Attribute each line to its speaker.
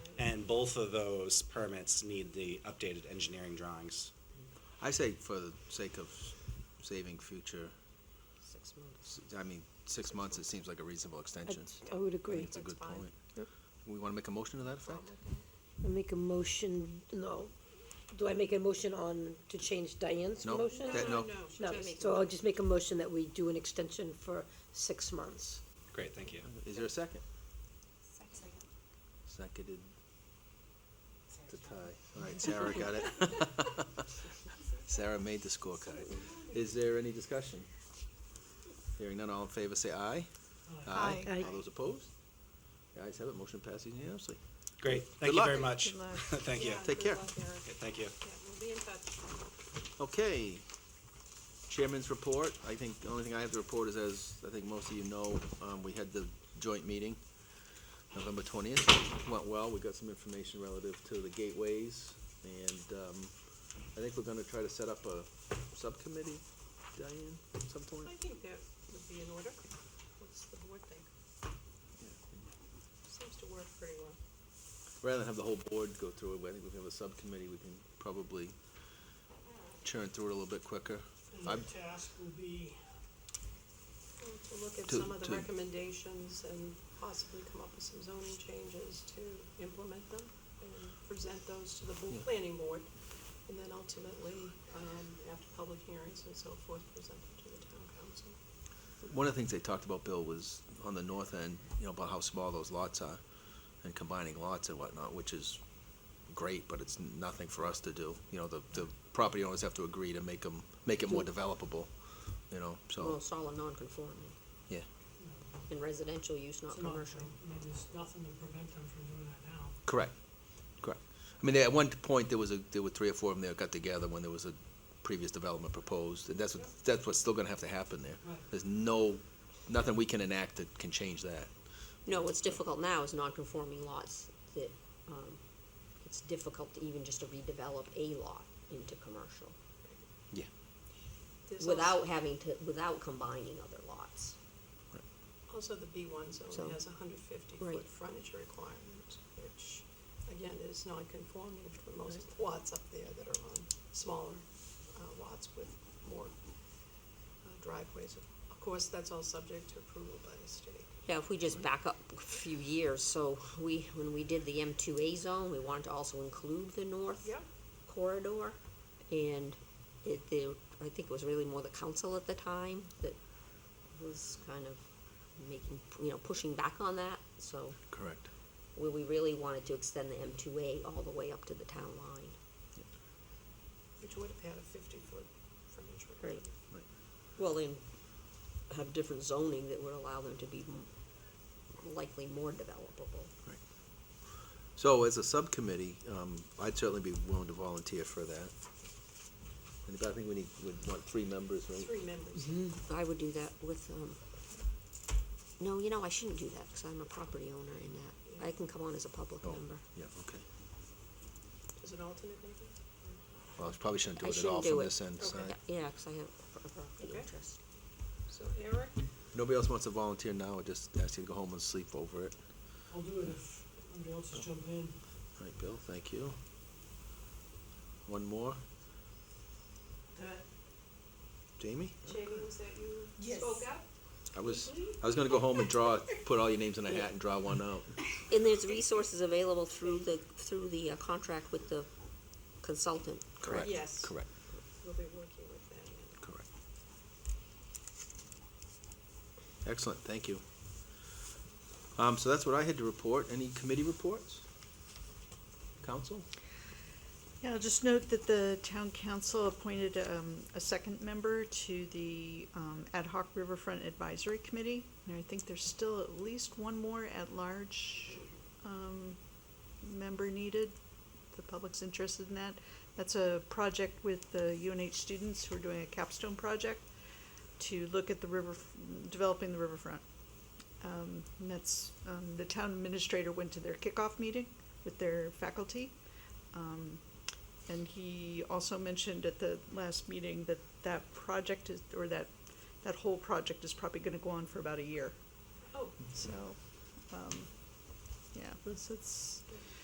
Speaker 1: both of those permits need the updated engineering drawings.
Speaker 2: I say for the sake of saving future,
Speaker 3: Six months.
Speaker 2: s- I mean, six months, it seems like a reasonable extension.
Speaker 3: I would
Speaker 2: I think
Speaker 3: agree.
Speaker 2: It's a
Speaker 3: I
Speaker 2: good
Speaker 3: fine.
Speaker 2: point.
Speaker 3: Yep.
Speaker 2: We want to make a motion to that effect?
Speaker 3: make a motion, no. Do I make a motion on, to change Diane's
Speaker 2: No,
Speaker 3: motion?
Speaker 2: that- no.
Speaker 3: No, so I'll just make a motion that we do an extension for six months.
Speaker 1: Great, thank you.
Speaker 2: Is there a second?
Speaker 4: Second.
Speaker 2: Seconded to tie. All right, Sarah got it. Sarah made the scorecard. Is there any discussion? Hearing none, all in favor, say aye.
Speaker 4: Aye.
Speaker 3: Aye.
Speaker 2: All those opposed? The ayes have it, motion passes unanimously.
Speaker 1: Great,
Speaker 2: Good
Speaker 1: thank you very
Speaker 2: luck.
Speaker 1: much.
Speaker 4: Good luck.
Speaker 1: Thank you.
Speaker 4: Yeah,
Speaker 2: Take
Speaker 4: good
Speaker 2: care.
Speaker 4: luck, Eric.
Speaker 1: Okay, Thank you.
Speaker 4: Yeah, we'll be in touch.
Speaker 2: Okay. Chairman's report, I think, the only thing I have to report is, as I think most of you know, um, we had the joint meeting November twentieth, went well, we got some information relative to the gateways, and, um, I think we're gonna try to set up a subcommittee, Diane, at some point.
Speaker 4: I think that would be in order. What's the board think? Seems to work pretty well.
Speaker 2: Rather than have the whole board go through it, I think we can have a subcommittee, we can probably churn through it a little bit quicker.
Speaker 5: The
Speaker 2: I'm-
Speaker 5: task will be,
Speaker 4: To look at
Speaker 2: To-
Speaker 4: some of
Speaker 2: to-
Speaker 4: the recommendations and possibly come up with some zoning changes to implement them and present those to the bo-
Speaker 2: Yeah.
Speaker 4: planning board. And then ultimately, um, after public hearings and so forth, present them to the town council.
Speaker 2: One of the things they talked about, Bill, was on the north end, you know, about how small those lots are and combining lots and whatnot, which is great, but it's nothing for us to do. You know, the, the property owners have to agree to make them, make it more developable, you know,
Speaker 6: Well,
Speaker 2: so,
Speaker 6: it's all a Oh, non-conforming,
Speaker 2: yeah.
Speaker 6: in residential use, not
Speaker 5: it's not,
Speaker 6: commercial.
Speaker 5: I mean, there's nothing to prevent them from doing that now.
Speaker 2: Correct, correct. I mean, they- at one point, there was a, there were three or four of them that got together when there was a previous development proposed, and that's what, that's what's still gonna have to happen there.
Speaker 5: Right.
Speaker 2: There's no, nothing we can enact that can change that.
Speaker 6: No, what's difficult now is non-conforming lots that, um, it's difficult to even just to redevelop a lot into commercial
Speaker 2: Yeah.
Speaker 4: There's also-
Speaker 6: without having to, without combining other lots.
Speaker 4: Also, the B one
Speaker 6: So-
Speaker 4: zone has a hundred fifty
Speaker 6: Right.
Speaker 4: foot frontage requirement, which, again, is non-conforming for most lots up there that are on smaller uh, lots with more uh, driveways. Of course, that's all subject to approval by the state.
Speaker 6: Yeah, if we just back up a few years, so we, when we did the M two A zone, we wanted to also include the north corridor. And it, there, I think it was really more the council at the time that was kind of making, you know, pushing back on that. So
Speaker 2: Correct.
Speaker 6: we, we really wanted to extend the M two A all the way up to the town line.
Speaker 4: Which would have had a fifty foot frontage
Speaker 6: Right.
Speaker 4: requirement.
Speaker 6: Well, then have different zoning that would allow them to be m- likely more developable.
Speaker 2: So as a subcommittee, um, I'd certainly be willing to volunteer for that. And I think we need, would want three members, right?
Speaker 4: Three members.
Speaker 6: I would do that with, um, no, you know, I shouldn't do that, cause I'm a property owner in that. I can come on as a public
Speaker 2: Oh,
Speaker 6: member.
Speaker 2: Yeah, okay.
Speaker 4: Is an alternate maybe?
Speaker 2: Well, I probably shouldn't do
Speaker 6: I
Speaker 2: it at all
Speaker 6: shouldn't do
Speaker 2: from
Speaker 6: it.
Speaker 2: this end, so.
Speaker 4: Okay.
Speaker 6: Yeah, Yeah, cause I have a pro- a property
Speaker 4: Okay.
Speaker 6: interest.
Speaker 4: So Eric,
Speaker 2: Nobody else wants to volunteer now, I just ask you to go home and sleep over it.
Speaker 5: I'll do it if nobody else has jumped in.
Speaker 2: All right, Bill, thank you. One more,
Speaker 4: that
Speaker 2: Jamie?
Speaker 4: Jamie, was that you
Speaker 3: Yes.
Speaker 4: spoke up?
Speaker 2: I was, I was gonna go home and draw, put all your names in a hat and draw one out.
Speaker 6: And there's resources available through the, through the uh, contract with the consultant.
Speaker 2: Correct.
Speaker 4: Yes.
Speaker 2: Correct,
Speaker 4: We'll be working with them.
Speaker 2: correct. Excellent, thank you. Um, so that's what I had to report. Any committee reports? Council?
Speaker 7: Yeah, I'll just note that the town council appointed um, a second member to the um, Ad hoc Riverfront Advisory Committee. And I think there's still at least one more at-large um, member needed. The public's interested in that. That's a project with the UNH students who are doing a capstone project to look at the river, developing the riverfront. Um, and that's, um, the town administrator went to their kickoff meeting with their faculty. Um, and he also mentioned at the last meeting that that project is, or that, that whole project is probably gonna go on for about a year.
Speaker 4: Oh.
Speaker 7: So, um, yeah, this, it's,